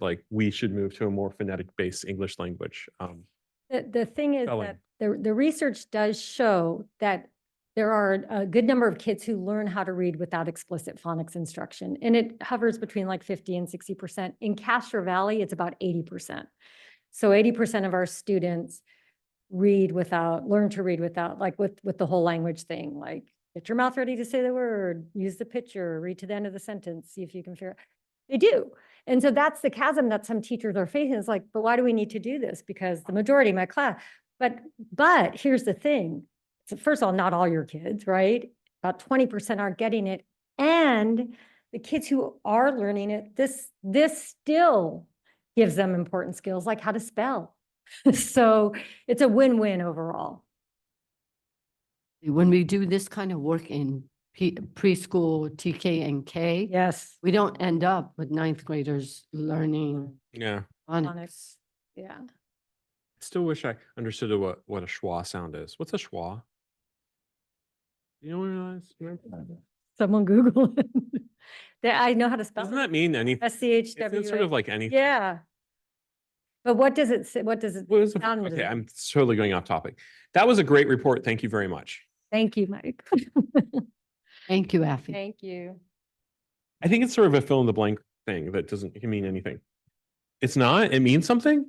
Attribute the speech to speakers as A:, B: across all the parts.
A: like we should move to a more phonetic based English language. Um,
B: The, the thing is
A: Spelling.
B: that the, the research does show that there are a good number of kids who learn how to read without explicit phonics instruction. And it hovers between like 50 and 60%. In Castro Valley, it's about 80%. So 80% of our students read without, learn to read without, like with, with the whole language thing, like get your mouth ready to say the word, use the picture, read to the end of the sentence, see if you can figure. They do. And so that's the chasm that some teachers are facing. It's like, but why do we need to do this? Because the majority of my class, but, but here's the thing. So First of all, not all your kids, right? About twenty percent are getting it. And the kids who are learning it, this, this still gives them important skills like how to spell. So it's a win-win overall.
C: When we do this kind of work in P- preschool, TK and K,
B: Yes.
C: we don't end up with ninth graders learning
A: yeah.
C: phonics.
B: Yeah.
A: Still wish I understood what, what a schwa sound is. What's a schwa? You don't realize?
B: Someone Google it. That I know how to spell.
A: Doesn't that mean anything?
B: S C H W.
A: It's sort of like anything.
B: Yeah. But what does it say? What does it?
A: What is a-
B: sound
A: Okay,
B: design.
A: I'm totally going off topic. That was a great report. Thank you very much.
B: Thank you, Mike.
C: Thank you, Afi.
B: Thank you.
A: I think it's sort of a fill in the blank thing that doesn't mean anything. It's not, it means something?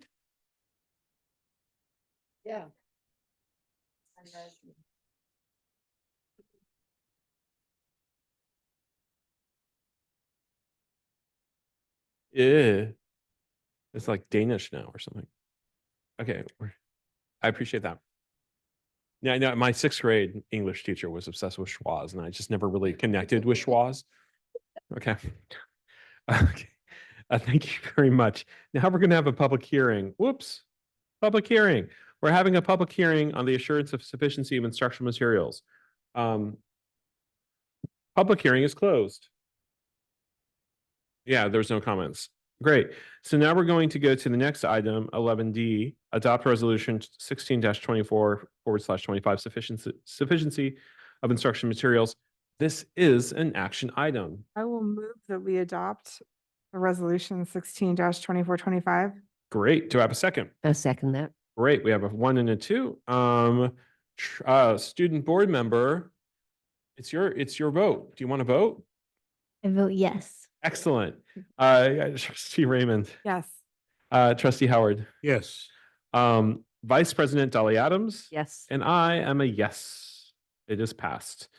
C: Yeah.
A: Yeah. Eh, It's like Danish now or something. Okay. we're- I appreciate that. Yeah, I know my sixth grade English teacher was obsessed with schwas and I just never really connected with schwas. Okay. Okay. Uh, thank you very much. Now we're going to have a public hearing. Whoops. Public hearing. We're having a public hearing on the assurance of sufficiency of instructional materials. Um, Public hearing is closed. Yeah, there's no comments. Great. So now we're going to go to the next item, eleven D, adopt resolution sixteen twenty-four forward slash twenty-five sufficiency, sufficiency of instruction materials. This is an action item.
D: I will move that we adopt the resolution sixteen twenty-four twenty-five.
A: Great. Do I have a second?
C: I'll second that.
A: Great. We have a one and a two. Um, tr- uh, student board member. It's your, it's your vote. Do you want to vote?
E: I vote yes.
A: Excellent. Uh, trustee Raymond,
D: Yes.
A: uh, trustee Howard,
F: Yes.
A: um, vice president Dolly Adams.
C: Yes.
A: And I am a yes. It is passed.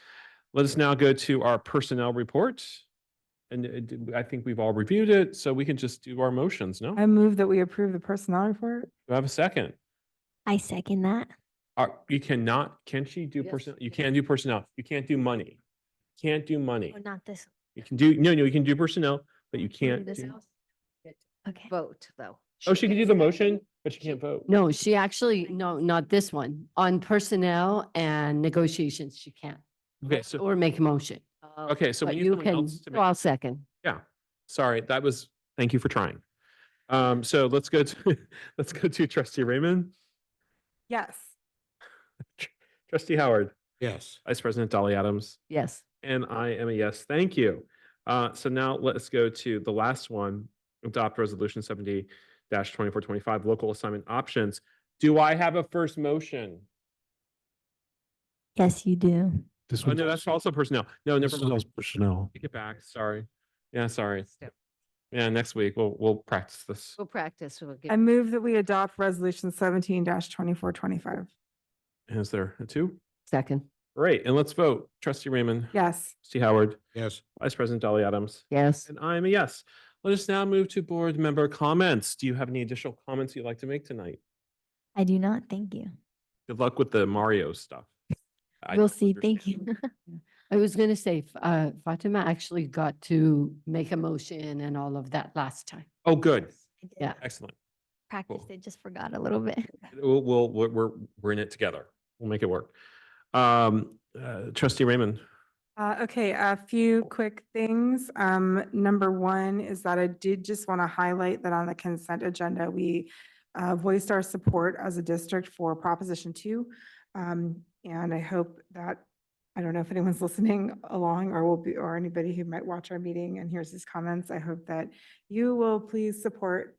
A: Let us now go to our personnel report. And uh, d- I think we've all reviewed it, so we can just do our motions, no?
D: I
A: Do
D: move that we approve the personnel report.
A: I have a second?
E: I second that.
A: Uh, You cannot, can she do
C: Yes,
A: personnel? You
C: yes.
A: can do personnel. You can't do money. Can't do money.
E: Oh, not this.
A: You can do, no, no, you can do personnel, but you can't do.
E: Okay.
C: Vote, though.
A: Oh, she can do the motion, but she can't vote.
C: No, she actually, no, not this one. On personnel and negotiations, she can't.
A: Okay, so,
C: Or make a motion.
A: okay, so
C: But
A: we need
C: you
A: someone
C: can,
A: else to
C: well,
A: make.
C: I'll second.
A: Sorry, that was, thank you for trying. Um, so let's go to, let's go to trustee Raymond.
D: Yes.
A: Trustee Howard,
F: Yes.
A: Vice President Dolly Adams,
C: Yes.
A: and I am a yes. Thank you. Uh, so now let's go to the last one. Adopt Resolution seventy twenty-four twenty-five, local assignment options. Do I have a first motion?
E: Yes, you do.
F: This
A: Oh, no, that's also personnel. No,
F: This
A: never
F: one
A: mind.
F: was personnel.
A: Take it back. Sorry. Yeah, sorry. Yeah, next week we'll, we'll practice this.
C: We'll practice. We'll get.
D: I move that we adopt resolution seventeen twenty-four twenty-five.
A: Is there a two?
C: Second.
A: Great. And let's vote. Trustee Raymond,
D: Yes.
A: Trustee Howard,
F: Yes.
A: Vice President Dolly Adams.
C: Yes.
A: And I'm a yes. Let us now move to board member comments. Do you have any additional comments you'd like to make tonight?
E: I do not. Thank you.
A: Good luck with the Mario stuff. I
E: We'll
A: don't
E: see. Thank
A: understand.
E: you.
C: I was going to say, f- uh, Fatima actually got to make a motion and all of that last time.
A: Oh, good.
E: I did
C: Yeah.
A: Excellent.
E: Practice it, just forgot a little bit.
A: We'll, we'll, we're, we're- we're in it together. We'll make it work. Um, uh, trustee Raymond,
D: Uh, okay, a few quick things. Um, number one is that I did just want to highlight that on the consent agenda, we uh, voiced our support as a district for Proposition Two. Um, and I hope that I don't know if anyone's listening along or will be, or anybody who might watch our meeting and hears these comments. I hope that you will please support